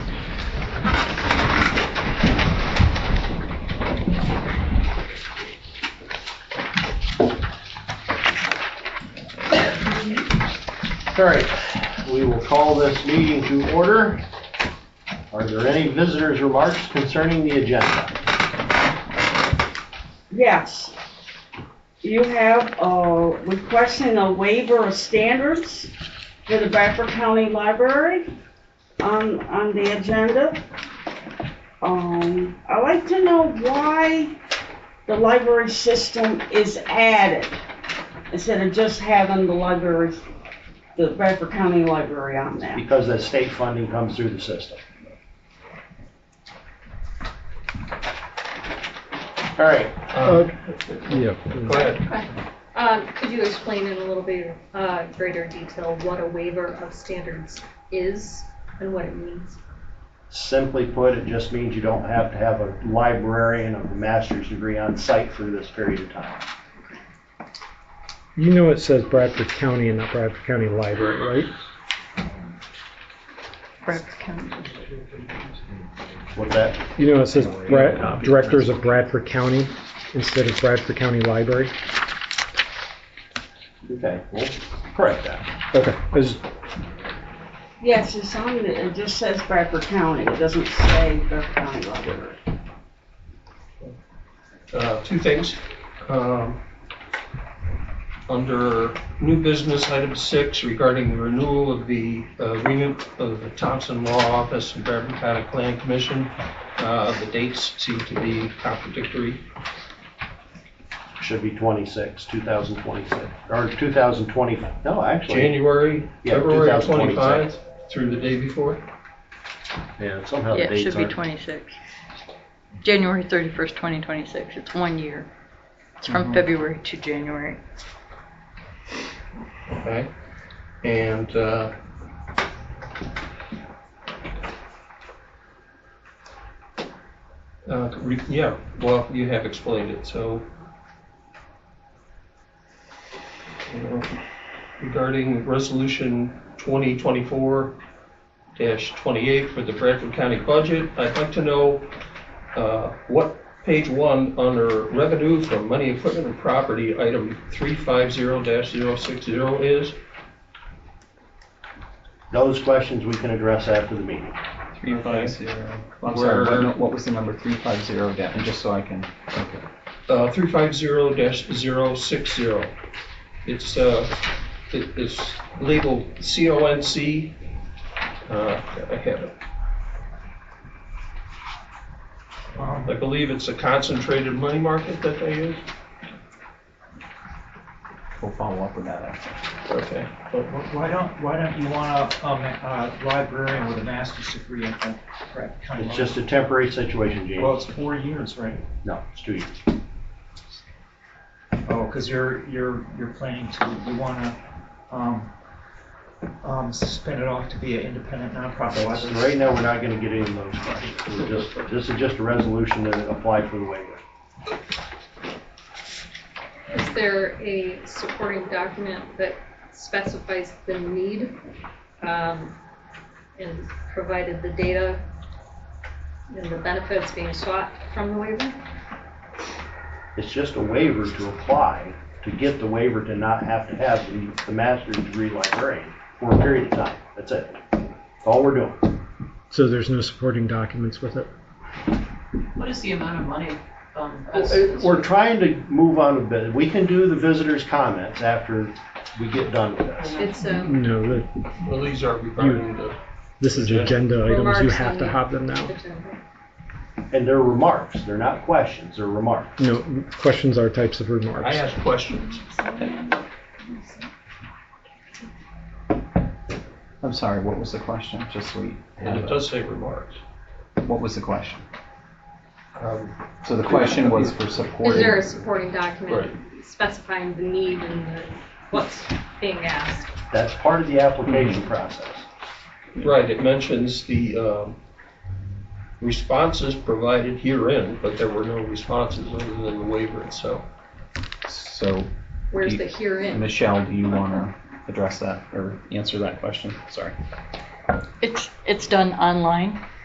All right, we will call this meeting to order. Are there any visitors' remarks concerning the agenda? Yes. You have, uh, requesting a waiver of standards for the Bradford County Library on, on the agenda. Um, I'd like to know why the library system is added instead of just having the library, the Bradford County Library on there. Because the state funding comes through the system. All right, Uh, Yeah. Go ahead. Um, Could you explain in a little bit uh, greater detail what a waiver of standards is and what it means? simply put, it just means you don't have to have a librarian of a master's degree on site for this period of time. You know it says Bradford County and not Bradford County Library, right? What's that? You know it says Bra- Directors of Bradford County instead of Bradford County Library? Okay, well, correct that. Okay, is- Yes, it's on, the- it just says Bradford County, it doesn't say Bradford County Library. Uh, Two things. Um, Under new business, item six regarding the renewal of the uh, agreement of the Thompson Law Office and Bourbon County Plan Commission, uh, the dates seem to be contradictory. Should be 26, 2026, or 2020, no, actually, January, Yeah, February of 2026. 25 through the day before. yeah, somehow Oh, the Yeah, it dates should be aren't. 26. January 31st, 2026. It's one year. It's Mm-hmm. from February to January. Okay. And uh, uh, re- yeah, well, you have explained it, so. You know, Uh, Regarding resolution 2024-28 for the Bradford County budget, I'd like to know uh, what page one under revenue from money, equipment, and property, item 350-060 is. Those questions we can address after the meeting. Three Three five five zero. I'm sorry, Where- what, no, what was the number three five zero down, and just so I can, okay. Uh, 350-060. It's, uh, it- it's labeled C-O-N-C. Uh, I have it. I believe it's a concentrated money market that they use. We'll follow up with that after. Okay. Why don't, why don't you want a, um, a librarian with a master's degree in the correct kind of? It's just a temporary situation, Well, James. it's four years, right? No, it's two years. Oh, because you're, you're, you're planning to, you want to, um, um, spin it off to be an independent nonprofit So library. Right now, we're not gonna get into those questions. We're just, this is just a resolution to apply for the waiver. Is there a supporting document that specifies the need um, and provided the data and the benefits being sought from the waiver? It's just a waiver to apply, to get the waiver to not have to have the, the master's degree librarian for a period of time. That's it. That's all we're doing. so there's no supporting documents with it? What is the amount of money? um, that's- Uh, We're trying to move on a bit. We can do the visitors' comments after we get done with this. It's um, No, the- Well, these are regarding the, this is agenda items, you Remarks have to and- have them now. And they're remarks. They're not questions. They're remarks. No, questions are types of I remarks. asked questions. I'm sorry, what was the question, just so we have And it it. does say remarks. What was the question? Um, So the question was for Is there a supporting supporting, document specifying the need and the- what's being asked? That's part of the application process. Right, it mentions the um, responses provided herein, but there were no responses other than the waiver itself. so, Where's You- the herein? Michelle, do you want to address that, or answer that question? Sorry. It's, it's done online.